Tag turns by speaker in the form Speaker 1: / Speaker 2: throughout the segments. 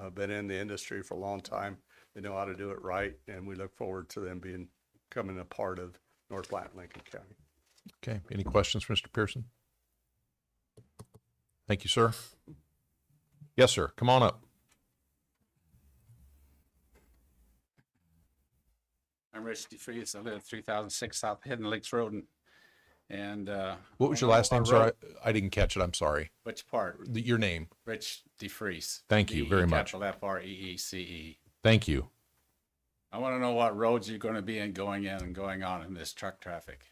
Speaker 1: uh, been in the industry for a long time. They know how to do it right, and we look forward to them being, coming a part of North Platte, and Lincoln County.
Speaker 2: Okay, any questions for Mr. Pearson? Thank you, sir. Yes, sir, come on up.
Speaker 3: I'm Rich DeFreeze. I live at 3006 South Hidden Lakes Road. and- And uh,
Speaker 2: What was your last name, sir? I I didn't catch it, I'm sorry.
Speaker 3: which part?
Speaker 2: The- Your name,
Speaker 3: Rich DeFreeze.
Speaker 2: Thank you very much.
Speaker 3: Capital F R E E C E.
Speaker 2: thank you.
Speaker 3: I want to know what roads you're going to be in going in and going on in this truck traffic.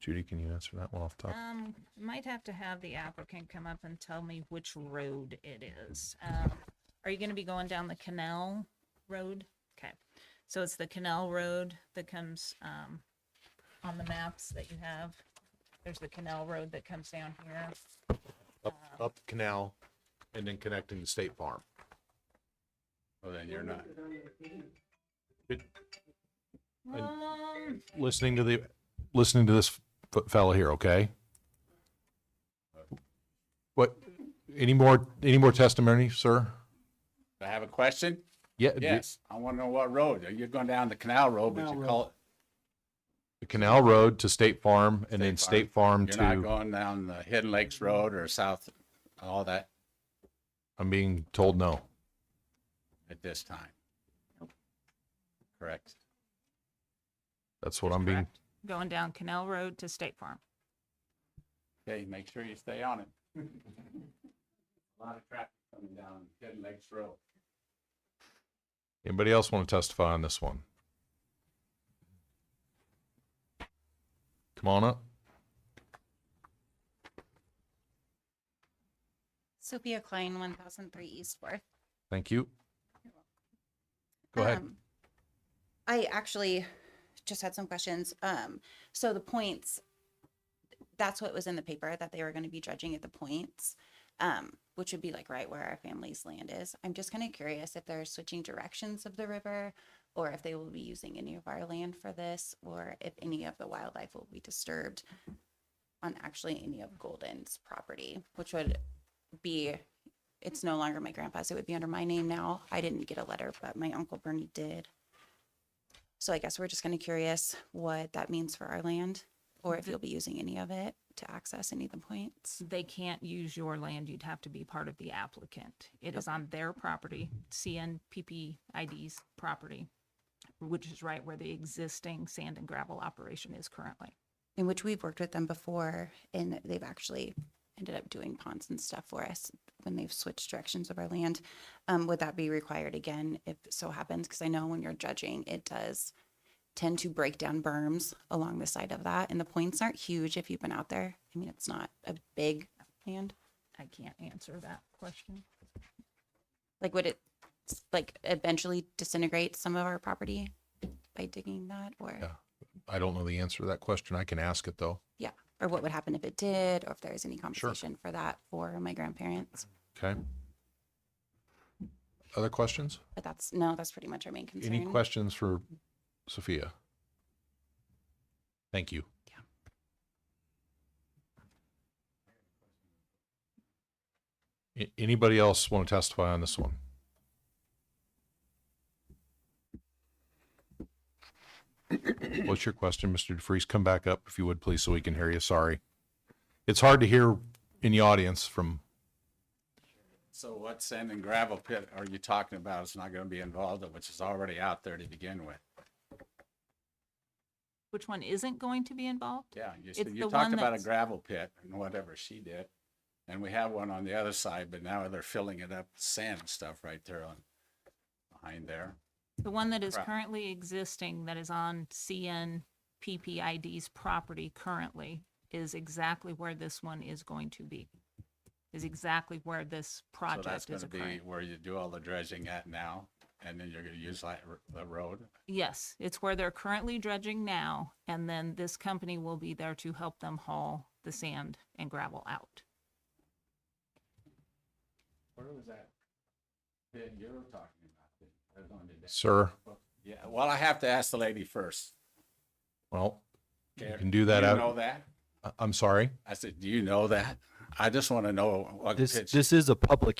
Speaker 2: Judy, can you answer that one off the top?
Speaker 4: Um, might have to have the applicant come up and tell me which road it is. Um, are you gonna be going down the canal road? Okay, so it's the canal road that comes, um, on the maps that you have. There's the canal road that comes down here.
Speaker 2: Up, up the canal and then connecting the state farm.
Speaker 3: Well, then you're not.
Speaker 2: And-
Speaker 4: Um,
Speaker 2: Listening to the, listening to this f- fella here, okay? What, any more, any more testimony, sir?
Speaker 3: I have a question.
Speaker 2: Yeah, the
Speaker 3: Yes. I want to know what road. Are you going down the canal road, but you call
Speaker 2: the canal road to state farm and then
Speaker 3: State
Speaker 2: state farm
Speaker 3: it, you're not
Speaker 2: to,
Speaker 3: going down the Hidden Lakes Road or South, all that
Speaker 2: I'm being told no.
Speaker 3: at this time. Correct.
Speaker 2: That's what I'm being,
Speaker 4: correct. going down canal road to State Farm.
Speaker 3: Okay, make sure you stay on it. A lot of traffic coming down Hidden Lakes Road.
Speaker 2: anybody else want to testify on this one? Come on up.
Speaker 5: Sophia Klein, one thousand three East Fourth.
Speaker 2: Thank you. Go ahead.
Speaker 5: Um, I actually just had some questions. Um, so the points, that's what was in the paper that they were gonna be judging at the points, um, which would be like right where our family's land is. I'm just kind of curious if they're switching directions of the river or if they will be using any of our land for this, or if any of the wildlife will be disturbed on actually any of Golden's property, which would be it's no longer my grandpa's. It would be under my name now. I didn't get a letter, but my uncle Bernie did. So I guess we're just kind of curious what that means for our land or if you'll be using any of it to access any of the points.
Speaker 4: They can't use your land. You'd have to be part of the applicant. It is on their property, CNPP ID's property, which is right where the existing sand and gravel operation is currently.
Speaker 5: In which we've worked with them before and they've actually ended up doing ponds and stuff for us when they've switched directions of our land. Um, would that be required again if so happens? Because I know when you're judging, it does tend to break down berms along the side of that. And the points aren't huge if you've been out there. I mean, it's not a big land.
Speaker 4: I can't answer that question.
Speaker 5: Like, would it like eventually disintegrate some of our property by digging that or?
Speaker 2: Yeah. I don't know the answer to that question. I can ask it though.
Speaker 5: Yeah. Or what would happen if it did, or if there was any compensation for that for my grandparents.
Speaker 2: Okay. Other questions?
Speaker 5: But that's, no, that's pretty much our main concern.
Speaker 2: Any questions for Sophia? Thank you. Yeah. Anybody else want to testify on this one? What's your question, Mr. DeFreeze? Come back up if you would, please, so we can hear you. Sorry. It's hard to hear in the audience from,
Speaker 3: So what sand and gravel pit are you talking about? It's not gonna be involved, which is already out there to begin with.
Speaker 4: Which one isn't going to be involved?
Speaker 3: Yeah, you,
Speaker 4: It's
Speaker 3: said- you
Speaker 4: the
Speaker 3: talked
Speaker 4: one
Speaker 3: about a
Speaker 4: that's-
Speaker 3: gravel pit and whatever she did. And we have one on the other side, but now they're filling it up with sand and stuff right there on, behind there.
Speaker 4: The one that is
Speaker 3: Correct.
Speaker 4: currently existing, that is on CNPPID's property currently, is exactly where this one is going to be. Is exactly where this
Speaker 3: So that's
Speaker 4: project is
Speaker 3: gonna
Speaker 4: occurring.
Speaker 3: be where you do all the dredging at now, and then you're gonna use that, r- the road.
Speaker 4: Yes, it's where they're currently dredging now, and then this company will be there to help them haul the sand and gravel out.
Speaker 3: Where was that? Pit you were talking about, that was on the-
Speaker 2: sir.
Speaker 3: Yeah, well, I have to ask the lady first.
Speaker 2: Well, you
Speaker 3: Care-
Speaker 2: can do that
Speaker 3: you
Speaker 2: out.
Speaker 3: Know that?
Speaker 2: I- I'm sorry.
Speaker 3: I said, do you know that? I just want to know what
Speaker 6: This
Speaker 3: pitch-
Speaker 6: this is a public